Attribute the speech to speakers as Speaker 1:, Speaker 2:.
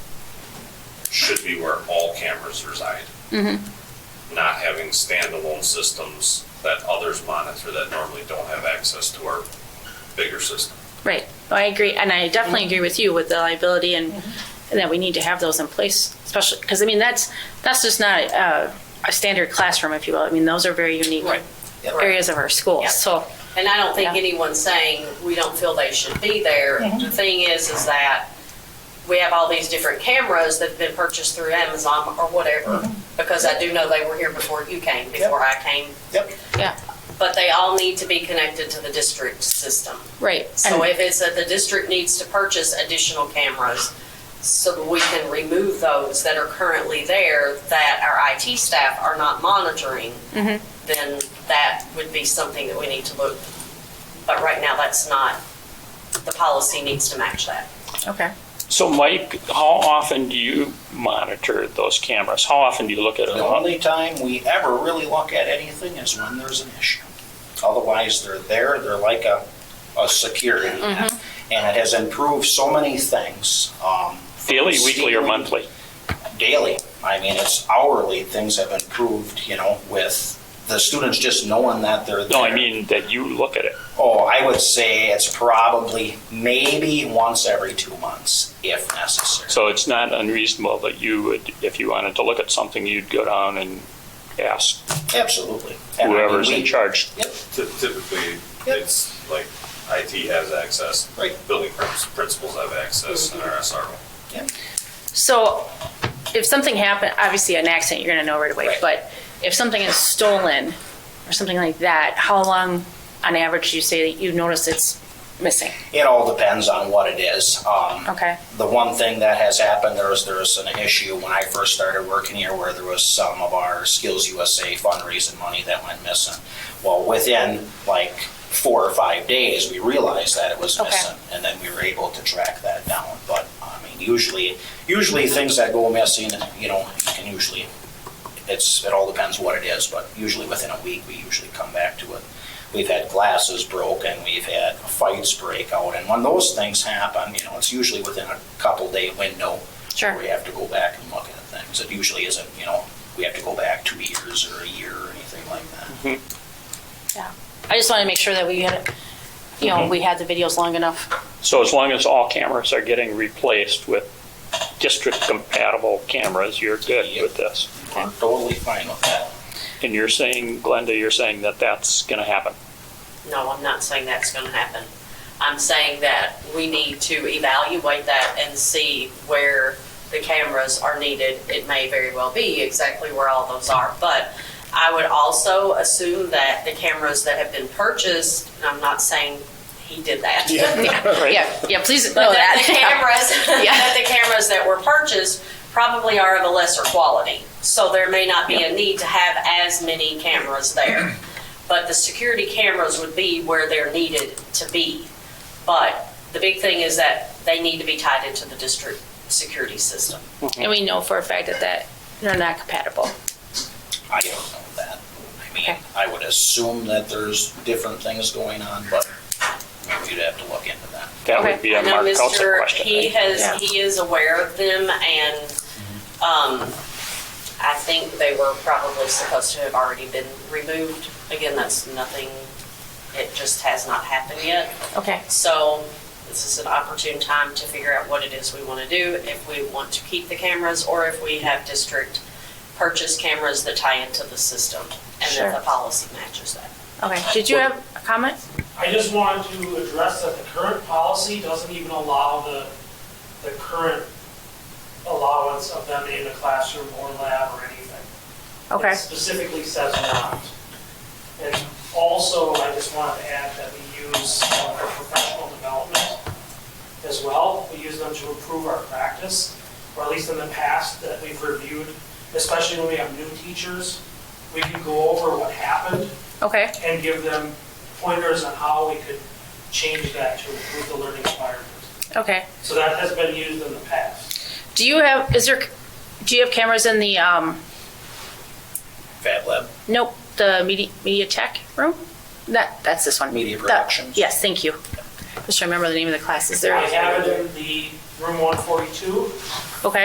Speaker 1: should be where all cameras reside. Not having standalone systems that others monitor that normally don't have access to our bigger system.
Speaker 2: Right. Oh, I agree, and I definitely agree with you with the liability and, and that we need to have those in place, especially, because I mean, that's, that's just not a, a standard classroom, if you will. I mean, those are very unique
Speaker 3: Right.
Speaker 2: areas of our school,
Speaker 3: Yeah.
Speaker 2: so.
Speaker 3: And I don't think
Speaker 2: Yeah.
Speaker 3: anyone's saying we don't feel they should be there. The thing is, is that we have all these different cameras that have been purchased through Amazon or whatever, because I do know they were here before you came, before I came.
Speaker 4: Yep.
Speaker 2: Yeah.
Speaker 3: But they all need to be connected to the district system.
Speaker 2: Right.
Speaker 3: So if it's that the district needs to purchase additional cameras, so that we can remove those that are currently there that our IT staff are not monitoring, then that would be something that we need to look. But right now, that's not, the policy needs to match that.
Speaker 2: Okay.
Speaker 5: So Mike, how often do you monitor those cameras? How often do you look at
Speaker 4: The
Speaker 5: them?
Speaker 4: only time we ever really look at anything is when there's an issue. Otherwise, they're there, they're like a, a security net.
Speaker 3: Mm-hmm.
Speaker 4: And it has improved so many things, um,
Speaker 5: Daily, weekly, or
Speaker 4: Stealing.
Speaker 5: monthly?
Speaker 4: daily. I mean, it's hourly, things have improved, you know, with the students just knowing that they're there.
Speaker 5: No, I mean that you look at it.
Speaker 4: Oh, I would say it's probably maybe once every two months, if necessary.
Speaker 5: So it's not unreasonable that you would, if you wanted to look at something, you'd go down and ask
Speaker 4: Absolutely. And I mean,
Speaker 5: whoever's in
Speaker 4: we-
Speaker 5: charge.
Speaker 1: Ty- Typically, it's like IT has access,
Speaker 4: Right.
Speaker 1: building prin- principals have access, and our SRO.
Speaker 2: So if something happened, obviously an accident, you're gonna know right away,
Speaker 4: Right.
Speaker 2: but if something is stolen or something like that, how long on average do you say that you notice it's missing?
Speaker 4: It all depends on what it is. Um,
Speaker 2: Okay.
Speaker 4: The one thing that has happened, there was, there was an issue when I first started working here where there was some of our Skills USA fundraising money that went missing. Well, within like four or five days, we realized that it was
Speaker 2: Okay.
Speaker 4: missing. And then we were able to track that down. But I mean, usually, usually things that go missing, you know, you can usually, it's, it all depends what it is, but usually within a week, we usually come back to it. We've had glasses broken, we've had fights break out, and when those things happen, you know, it's usually within a couple day window.
Speaker 2: Sure.
Speaker 4: Where we have to go back and look at things. It usually isn't, you know, we have to go back two years or a year or anything like that.
Speaker 2: Yeah. I just wanted to make sure that we had, you know, we had the videos long enough.
Speaker 5: So as long as all cameras are getting replaced with district compatible cameras, you're good with this.
Speaker 4: We're totally fine with that.
Speaker 5: And you're saying, Glenda, you're saying that that's going to happen.
Speaker 3: No, I'm not saying that's going to happen. I'm saying that we need to evaluate that and see where the cameras are needed. It may very well be exactly where all those are, but I would also assume that the cameras that have been purchased, and I'm not saying he did that.
Speaker 5: Right?
Speaker 2: Yeah, yeah, please know
Speaker 3: But that the
Speaker 2: Oh, that.
Speaker 3: cameras,
Speaker 2: Yeah.
Speaker 3: that the cameras that were purchased probably are of a lesser quality. So there may not be a need to have as many cameras there. But the security cameras would be where they're needed to be. But the big thing is that they need to be tied into the district security system.
Speaker 2: And we know for a fact that that, they're not compatible.
Speaker 4: I don't know that. I mean,
Speaker 2: Okay.
Speaker 4: I would assume that there's different things going on, but you'd have to look into that.
Speaker 5: That
Speaker 2: Okay.
Speaker 5: would be
Speaker 3: I
Speaker 5: a
Speaker 3: know
Speaker 5: Mark Kelsick
Speaker 3: Mr.
Speaker 5: question.
Speaker 3: He
Speaker 5: right?
Speaker 2: Yeah.
Speaker 3: has, he is aware of them and, um, I think they were probably supposed to have already been removed. Again, that's nothing, it just has not happened yet.
Speaker 2: Okay.
Speaker 3: So this is an opportune time to figure out what it is we want to do, if we want to keep the cameras or if we have district purchase cameras that tie into the system and
Speaker 2: Sure.
Speaker 3: that the policy matches that.
Speaker 2: Okay. Did you have a comment?
Speaker 6: I just wanted to address that the current policy doesn't even allow the, the current allowance of them in the classroom or lab or anything.
Speaker 2: Okay.
Speaker 6: It specifically says not. And also, I just wanted to add that we use uh, our professional development as well. We use them to improve our practice, or at least in the past that we've reviewed, especially when we have new teachers. We can go over what happened
Speaker 2: Okay.
Speaker 6: and give them pointers on how we could change that to improve the learning environment.
Speaker 2: Okay.
Speaker 6: So that has been used in the past.
Speaker 2: Do you have, is there, do you have cameras in the, um,
Speaker 4: Fab Lab,
Speaker 2: nope, the media, media tech room? That, that's this one.
Speaker 4: Media
Speaker 2: The-
Speaker 4: Productions.
Speaker 2: Yes, thank you. Just remember the name of the class. Is
Speaker 6: I
Speaker 2: there,
Speaker 6: have it in the room one forty-two,
Speaker 2: okay.